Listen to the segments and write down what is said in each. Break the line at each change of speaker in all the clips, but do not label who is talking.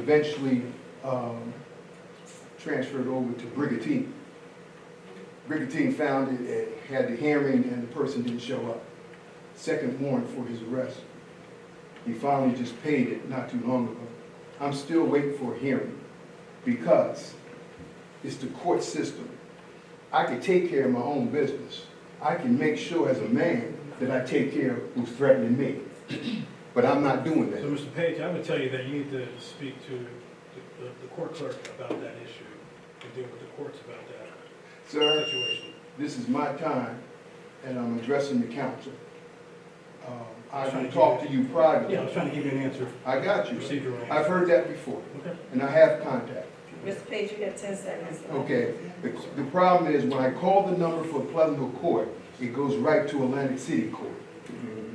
eventually um, transferred over to Brigantine. Brigantine found it, it had the hearing, and the person didn't show up. Second warrant for his arrest. He finally just paid it not too long ago. I'm still waiting for a hearing because it's the court system. I can take care of my own business. I can make sure as a man that I take care of who's threatening me. But I'm not doing
So,
that.
Mr. Page, I would tell you that you need to speak to the- the the court clerk about that issue and deal with the courts about that
Sir,
situation.
this is my time, and I'm addressing the council. Um, I
Trying
can
to
talk
get-
to you
Yeah, I
privately.
was trying to give you an answer
I got you.
procedurally.
I've heard that before,
Okay.
and I have contact.
Mr. Page, you got ten seconds.
Okay, the, the problem is, when I call the number for Pleasant Hill Court, it goes right to Atlantic City Court.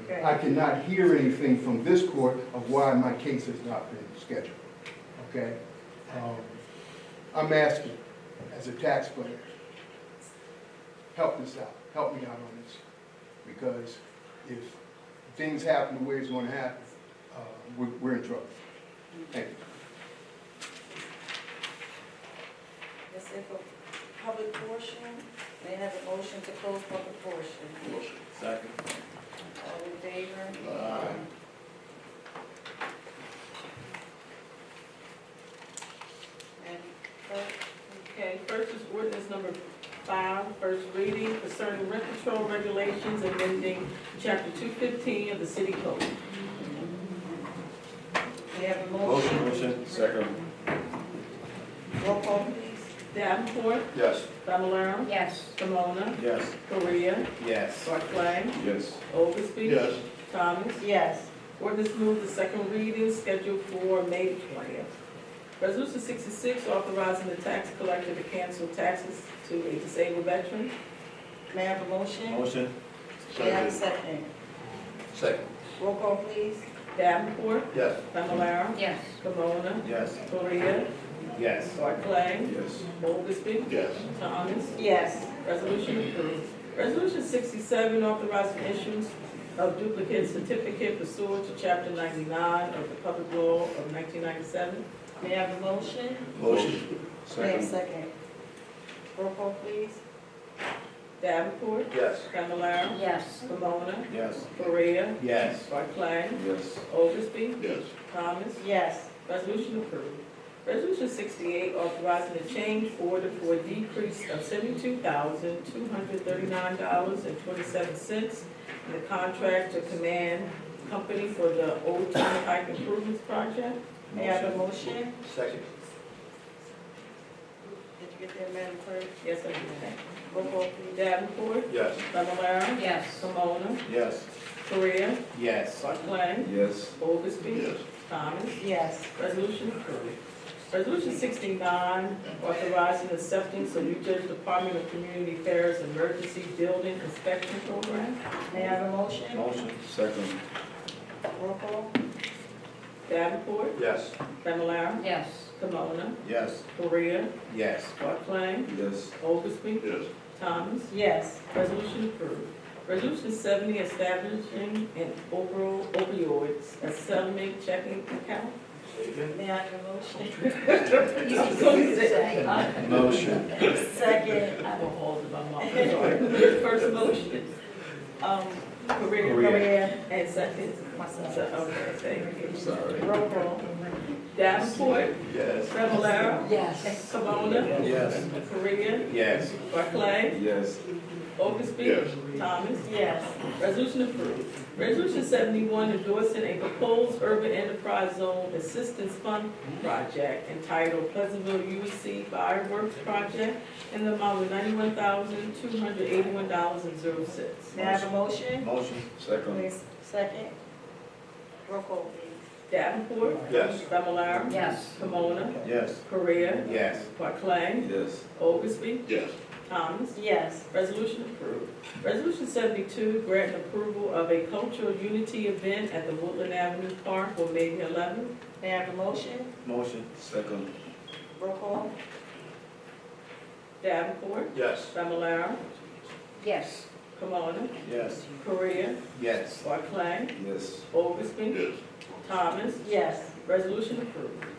Okay.
I cannot hear anything from this court of why my case has not been scheduled, okay? Um, I'm asking, as a taxpayer, help this out, help me out on this. Because if things happen the way it's gonna happen, uh, we're, we're in trouble. Thank you.
That's it for public portion. May I have a motion to close public portion?
Motion. Second.
All in favor?
Aye.
And, first- Okay, first is ordinance number five, first reading concerning rent control regulations amending chapter two fifteen of the city code.
May I have a motion?
Motion. Second.
Roll call, please.
Davenport,
Yes.
Fablelaro,
Yes.
Camona,
Yes.
Korea,
Yes.
Barclay,
Yes.
Oldesty.
Yes.
Thomas.
Yes.
Ordinance moved to second reading scheduled for May twentieth. Resolution sixty-six, authorizing the tax collector to cancel taxes to a disabled veteran.
May I have a motion?
Motion.
May I have a second?
Second.
Roll call, please.
Davenport,
Yes.
Fablelaro,
Yes.
Camona,
Yes.
Korea,
Yes.
Barclay,
Yes.
Oldesty,
Yes.
Thomas.
Yes.
Resolution approved. Resolution sixty-seven, authorizing issues of duplicate certificate pursuant to chapter ninety-nine of the Public Law of nineteen ninety-seven.
May I have a motion?
Motion.
May I have a second? Roll call, please.
Davenport,
Yes.
Fablelaro,
Yes.
Camona,
Yes.
Korea,
Yes.
Barclay,
Yes.
Oldesty,
Yes.
Thomas.
Yes.
Resolution approved. Resolution sixty-eight, authorizing a change order for a decrease of seventy-two thousand, two hundred thirty-nine dollars and twenty-seven cents in the contract to Command Company for the Old Turnpike Improvements Project.
May I have a motion?
Second.
Did you get that, Madam Clerk?
Yes, I do.
Roll call, please.
Davenport,
Yes.
Fablelaro,
Yes.
Camona,
Yes.
Korea,
Yes.
Barclay,
Yes.
Oldesty, Thomas.
Yes.
Resolution approved. Resolution sixty-nine, authorizing acceptance of New Jersey Department of Community Affairs Emergency Building Inspection Program.
May I have a motion?
Motion. Second.
Roll call?
Davenport,
Yes.
Familar,
Yes.
Kimona,
Yes.
Korea,
Yes.
Barclay,
Yes.
Oglesby,
Yes.
Thomas.
Yes.
Resolution approved. Resolution seventy, establishing an overall opioids settlement checking account.
May I have a motion?
uh, Motion.
Second.
I have a hold of my mouth. First motion, um, Korea
Maria.
and second, So,
Myself.
okay, thank you.
Sorry.
Roll call. Davenport,
Yes.
Fablelaro,
Yes.
Camona,
Yes.
Korea,
Yes.
Barclay,
Yes.
Oglesby, Thomas.
Yes.
Resolution approved. Resolution seventy-one endorsing a proposed urban enterprise zone assistance fund project entitled Pleasantville UEC Fireworks Project in the amount of ninety-one thousand, two hundred eighty-one dollars and zero cents.
May I have a motion?
Motion. Second.
Please, second. Roll call, please.
Davenport,
Yes.
Fablelaro,
Yes.
Camona,
Yes.
Korea,
Yes.
Barclay,
Yes.
Oglesby,
Yes.
Thomas.
Yes.
Resolution approved. Resolution seventy-two, grant approval of a cultural unity event at the Woodland Avenue Park for May the eleventh.
May I have a motion?
Motion. Second.
Roll call?
Davenport,
Yes.
Fablelaro,
Yes.
Camona,
Yes.
Korea,
Yes.
Barclay,
Yes.
Oglesby, Thomas.
Yes.
Resolution approved.